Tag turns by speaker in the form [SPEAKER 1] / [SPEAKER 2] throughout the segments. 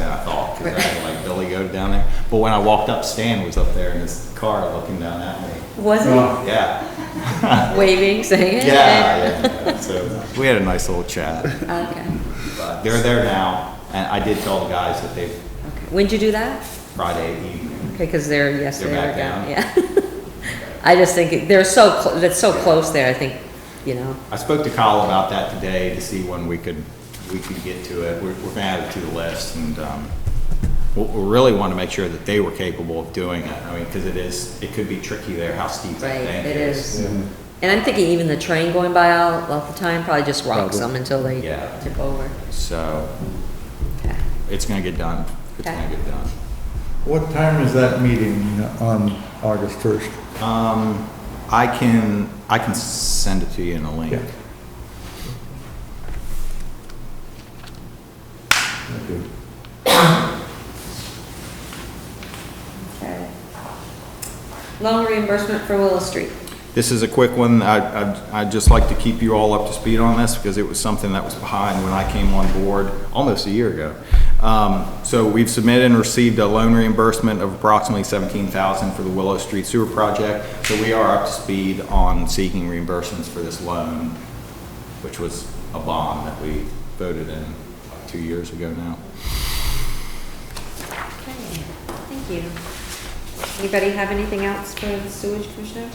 [SPEAKER 1] I had like Billy Goat down there. But when I walked up, Stan was up there in his car looking down at me.
[SPEAKER 2] Was
[SPEAKER 3] Oh,
[SPEAKER 1] Yeah,
[SPEAKER 2] it waving,
[SPEAKER 1] yeah,
[SPEAKER 2] saying? it?
[SPEAKER 1] yeah. yeah. So we had a nice little chat.
[SPEAKER 2] Okay,
[SPEAKER 1] But they're there now, and I did tell the guys that they
[SPEAKER 2] okay. When'd you do that?
[SPEAKER 1] Friday evening.
[SPEAKER 2] Okay, because they're, yes,
[SPEAKER 1] They're
[SPEAKER 2] they are
[SPEAKER 1] back down.
[SPEAKER 2] down, yeah. I just think, it- they're so, clo- that's so close there, I think, you know.
[SPEAKER 1] I spoke to Kyle about that today to see when we could, we could get to it. We're, we're gonna add it to the list and, um, we, we really want to make sure that they were capable of doing it. I mean, because it is, it could be tricky there how steep that
[SPEAKER 2] Right,
[SPEAKER 1] bank
[SPEAKER 2] it
[SPEAKER 1] is.
[SPEAKER 2] is. And I'm thinking even the train going by all, all the time probably just rocks
[SPEAKER 3] Probably.
[SPEAKER 2] them until they
[SPEAKER 1] Yeah.
[SPEAKER 2] tip over.
[SPEAKER 1] So
[SPEAKER 2] Okay.
[SPEAKER 1] it's gonna get done. It's gonna
[SPEAKER 2] Okay.
[SPEAKER 1] get done.
[SPEAKER 3] What time is that meeting on August 1st?
[SPEAKER 1] Um, I can, I can send it to you in a link.
[SPEAKER 3] Yeah. Okay.
[SPEAKER 2] Okay. Loan reimbursement for Willow Street.
[SPEAKER 1] This is a quick one. I, I- I'd just like to keep you all up to speed on this because it was something that was behind when I came on board almost a year ago. Um, So we've submitted and received a loan reimbursement of approximately $17,000 for the Willow Street Sewer Project. So we are up to speed on seeking reimbursements for this loan, which was a bond that we voted in like, two years ago now.
[SPEAKER 2] Okay, thank you. Anybody have anything else for the sewage commissioner?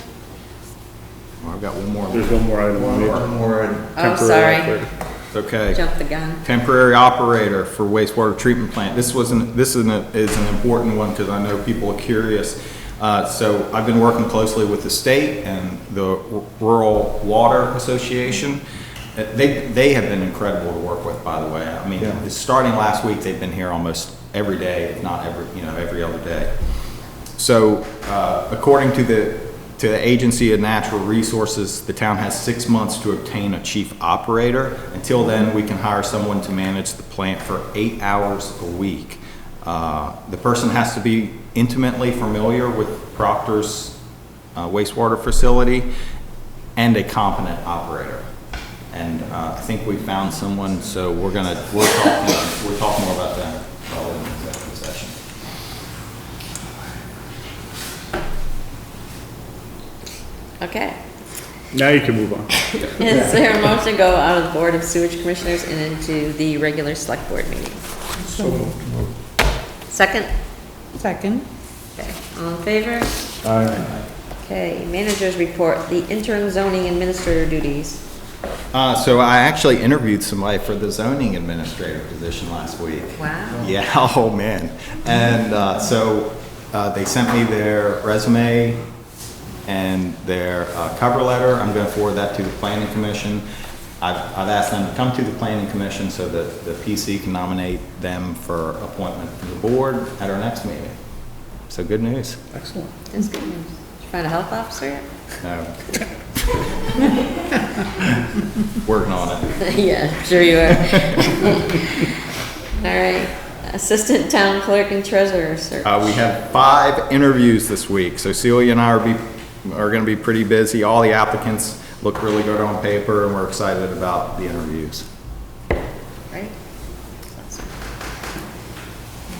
[SPEAKER 1] Well, I've got one more.
[SPEAKER 4] There's one more item. on
[SPEAKER 3] One
[SPEAKER 4] it.
[SPEAKER 3] more,
[SPEAKER 2] Oh,
[SPEAKER 4] Temporary
[SPEAKER 2] sorry,
[SPEAKER 4] operator.
[SPEAKER 1] It's Okay.
[SPEAKER 2] jumped the gun.
[SPEAKER 1] temporary operator for wastewater treatment plant. This wasn't, this is an, is an important one because I know people are curious. Uh, so I've been working closely with the state and the Rural Water Association. Uh, They, they have been incredible to work with, by the way. I mean,
[SPEAKER 3] Yeah.
[SPEAKER 1] it's starting last week, they've been here almost every day, if not every, you know, every other day. So, uh, according to the, to the Agency of Natural Resources, the town has six months to obtain a chief operator. Until then, we can hire someone to manage the plant for eight hours a week. Uh, The person has to be intimately familiar with Proctor's uh, wastewater facility and a competent operator. And uh, I think we found someone, so we're gonna, we'll talk, we'll talk more about that while in executive session.
[SPEAKER 2] Okay.
[SPEAKER 4] Now you can move on.
[SPEAKER 2] Is there a motion to go out of the Board of Sewage Commissioners and into the regular select board meeting? Second?
[SPEAKER 5] Second.
[SPEAKER 2] Okay, all in favor?
[SPEAKER 3] I,
[SPEAKER 2] Okay, managers report, the interim zoning administrator duties.
[SPEAKER 1] Uh, so I actually interviewed somebody for the zoning administrator position last week.
[SPEAKER 2] Wow.
[SPEAKER 1] Yeah, oh man. And, uh, so, uh, they sent me their resume and their, uh, cover letter. I'm gonna forward that to the planning commission. I've, I've asked them to come to the planning commission so that the PC can nominate them for appointment to the board at our next meeting. So good news.
[SPEAKER 4] Excellent.
[SPEAKER 2] That's good news. Did you find a health officer yet?
[SPEAKER 1] No. Working on it.
[SPEAKER 2] Yeah, I'm sure you are. All right, assistant town clerk and treasurer, sir.
[SPEAKER 1] Uh, we have five interviews this week, so Celia and I are be, are gonna be pretty busy. All the applicants look really good on paper, and we're excited about the interviews.
[SPEAKER 2] Right?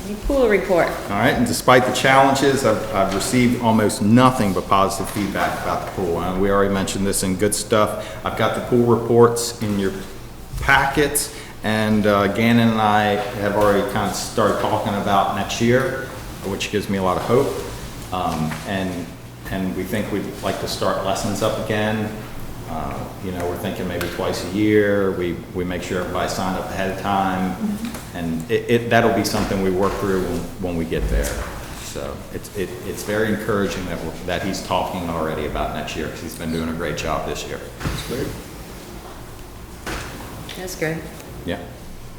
[SPEAKER 2] The Pool report.
[SPEAKER 1] All right, and despite the challenges, I've, I've received almost nothing but positive feedback about the pool. And we already mentioned this in good stuff. I've got the pool reports in your packets, and uh, Gannon and I have already kind of started talking about next year, which gives me a lot of hope. Um, and, and we think we'd like to start lessons up again. Uh, You know, we're thinking maybe twice a year, we, we make sure everybody signed up ahead of time, and it, it, that'll be something we work through when, when we get there. So it's, it, it's very encouraging that, we're- that he's talking already about next year, because he's been doing a great job this year.
[SPEAKER 2] That's good.
[SPEAKER 1] Yeah.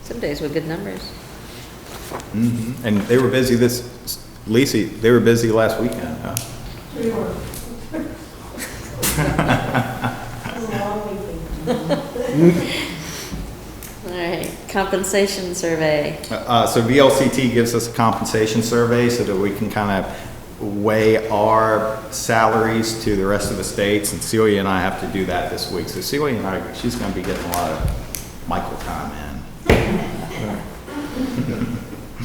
[SPEAKER 2] Some days with good numbers.
[SPEAKER 1] And they were busy this, Lisi, they were busy last weekend, huh?
[SPEAKER 2] All right, compensation survey.
[SPEAKER 1] Uh, So VLCT gives us a compensation survey so that we can kind of weigh our salaries to the rest of the states, and Celia and I have to do that this week. So Celia and I, she's going to be getting a lot of Michael time in.